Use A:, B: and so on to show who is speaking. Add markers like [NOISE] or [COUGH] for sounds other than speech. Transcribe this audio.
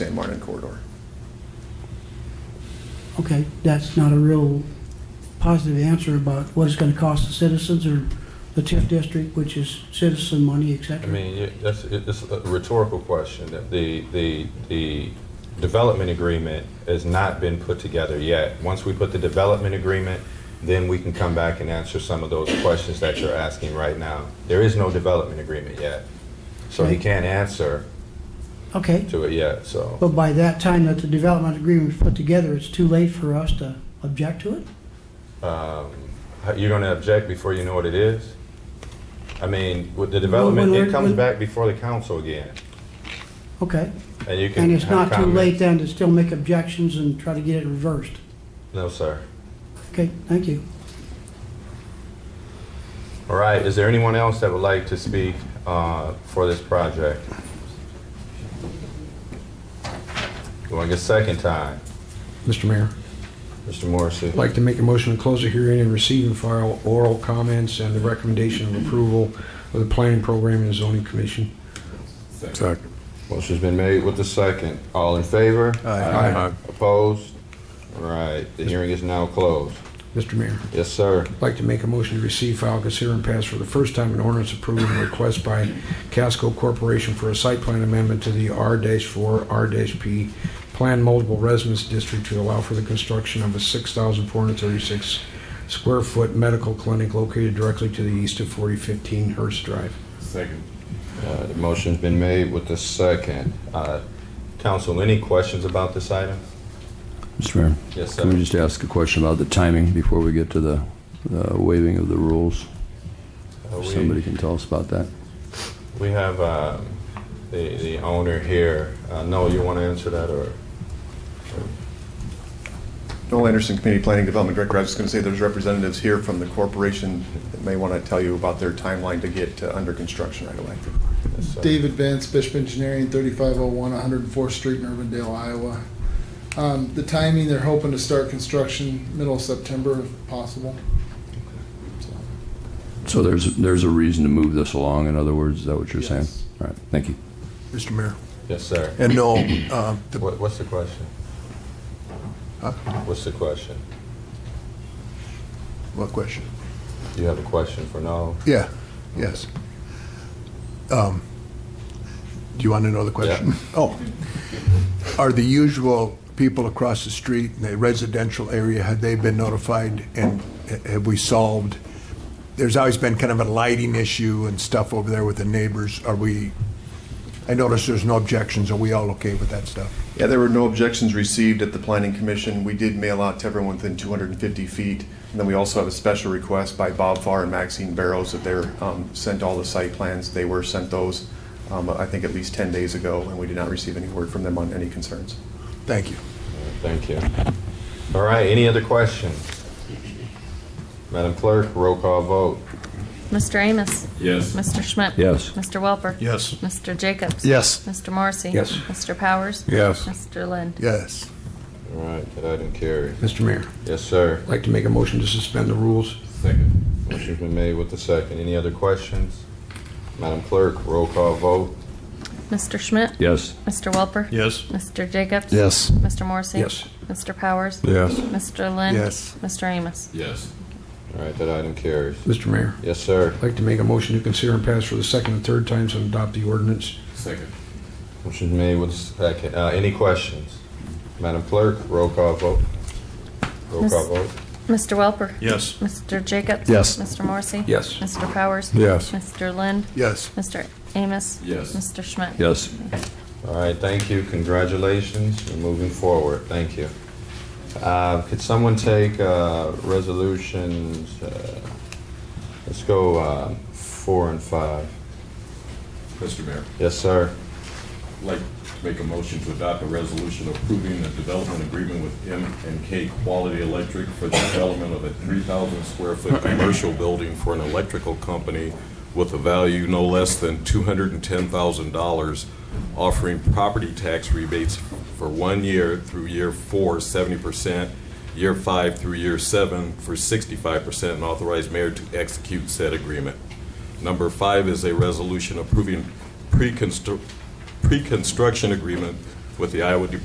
A: San Martin corridor.
B: Okay, that's not a real positive answer about what it's gonna cost the citizens or the TIF district, which is citizen money, et
C: I
B: cetera.
C: mean, you- that's, it- it's a rhetorical question. The, the, the development agreement has not been put together yet. Once we put the development agreement, then we can come back and answer some of those questions that you're asking right now. There is no development agreement yet. So he can't answer
B: Okay,
C: to it yet, so.
B: but by that time that the development agreement is put together, it's too late for us to object to it?
C: um, how- You're gonna object before you know what it is? I mean, with the development,
B: when
C: it
B: we're-
C: comes
B: when-
C: back before the council again.
B: Okay,
C: And you can.
B: and it's
C: have
B: not too
C: comments.
B: late then to still make objections and try to get it reversed?
C: No, sir.
B: Okay, thank you.
C: All right, is there anyone else that would like to speak uh, for this project? Going a second time,
D: Mr. Mayor,
C: Mr. Morrissey.
D: I'd like to make a motion to close the hearing and receive and file oral comments and the recommendation of approval of the planning program and zoning commission.
E: Second.
C: Motion's been made with the second. All in favor?
E: Aye.
C: Opposed? All right, the hearing is now closed.
D: Mr. Mayor,
C: Yes, sir.
D: I'd like to make a motion to receive, file, consider, and pass for the first time an ordinance approving a request by Casco Corporation for a site plan amendment to the R-4, R-P Plan Multiple Residence District to allow for the construction of a 6,436 square foot medical clinic located directly to the east of 4015 Hurst Drive.
E: Second.
C: Uh, The motion's been made with the second. Uh, Council, any questions about this item?
F: Mr. Mayor,
C: Yes,
F: can we
C: sir.
F: just ask a question about the timing before we get to the uh, waiving of the rules?
C: Are
F: If
C: Uh, we-
F: Somebody can tell us about that?
C: We have uh, the the owner here. Uh, No, you want to answer that, or?
A: Noel Anderson, Community Planning Development Director, I was going to say there's representatives here from the corporation that may want to tell you about their timeline to get uh, under construction right away.
C: Yes, sir.
G: David Vance, Bishop Engineering, 3501 104th Street in Urbandale, Iowa. Um, The timing, they're hoping to start construction middle of September if possible. So,
F: So there's, there's a reason to move this along, in other words, is that what you're saying?
G: Yes.
F: All right, thank you.
E: Mr. Mayor.
C: Yes, sir.
E: And [CLEARS THROAT] no, uh, the-
C: What- What's the question?
E: Huh?
C: What's the question?
E: what question?
C: You have a question for Noel?
E: Yeah, yes. Um, Do you want to know the question? Oh. Are the usual people across the street in the residential area, had they been notified and ha- have we solved? There's always been kind of a lighting issue and stuff over there with the neighbors. Are we, I notice there's no objections. Are we all okay with that stuff?
A: Yeah, there were no objections received at the planning commission. We did mail out to everyone within 250 feet. And then we also have a special request by Bob Farr and Maxine Barrows that they're um, sent all the site plans. They were sent those, um, I think, at least 10 days ago, and we did not receive any word from them on any concerns.
E: Thank you.
C: Thank you. All right, any other questions? Madam Clerk, roll call vote.
H: Mr. Amos.
E: Yes.
H: Mr. Schmidt.
F: Yes.
H: Mr. Welper.
E: Yes.
H: Mr. Jacobs.
E: Yes.
H: Mr. Morrissey.
D: Yes.
H: Mr. Powers.
E: Yes.
H: Mr. Lind.
E: Yes.
C: All right, that item carries.
D: Mr. Mayor.
C: Yes, sir.
D: I'd like to make a motion to suspend the rules.
C: Motion's been made with the second. Any other questions? Madam Clerk, roll call vote.
H: Mr. Schmidt.
F: Yes.
H: Mr. Welper.
E: Yes.
H: Mr. Jacobs.
E: Yes.
H: Mr. Morrissey.
D: Yes.
H: Mr. Powers.
E: Yes.
H: Mr. Lind.
E: Yes.
H: Mr. Amos.
E: Yes.
C: All right, that item carries.
D: Mr. Mayor,
C: Yes, sir.
D: I'd like to make a motion to consider and pass for the second and third times and adopt the ordinance.
E: Second.
C: Motion's made with the second. Uh, Any questions? Madam Clerk, roll call vote. Roll
H: Miss-
C: call vote.
H: Mr. Welper.
E: Yes.
H: Mr. Jacobs.
E: Yes.
H: Mr. Morrissey.
D: Yes.
H: Mr. Powers.
E: Yes.
H: Mr. Lind.
E: Yes.
H: Mr. Amos.
E: Yes.
H: Mr. Schmidt.
F: Yes.
C: All right, thank you, congratulations, you're moving forward, thank you. Uh, Could someone take uh, resolutions, uh, let's go uh, four and five.
I: Mr. Mayor,
C: Yes, sir.
I: I'd like to make a motion to adopt a resolution approving a development agreement with M and K Quality Electric for the development of a 3,000 square foot commercial building for an electrical company with a value no less than $210,000, offering property tax rebates for one year through year four, 70%, year five through year seven for 65%, and authorize mayor to execute said agreement. Number five is a resolution approving pre-constru- pre-construction agreement with the Iowa Department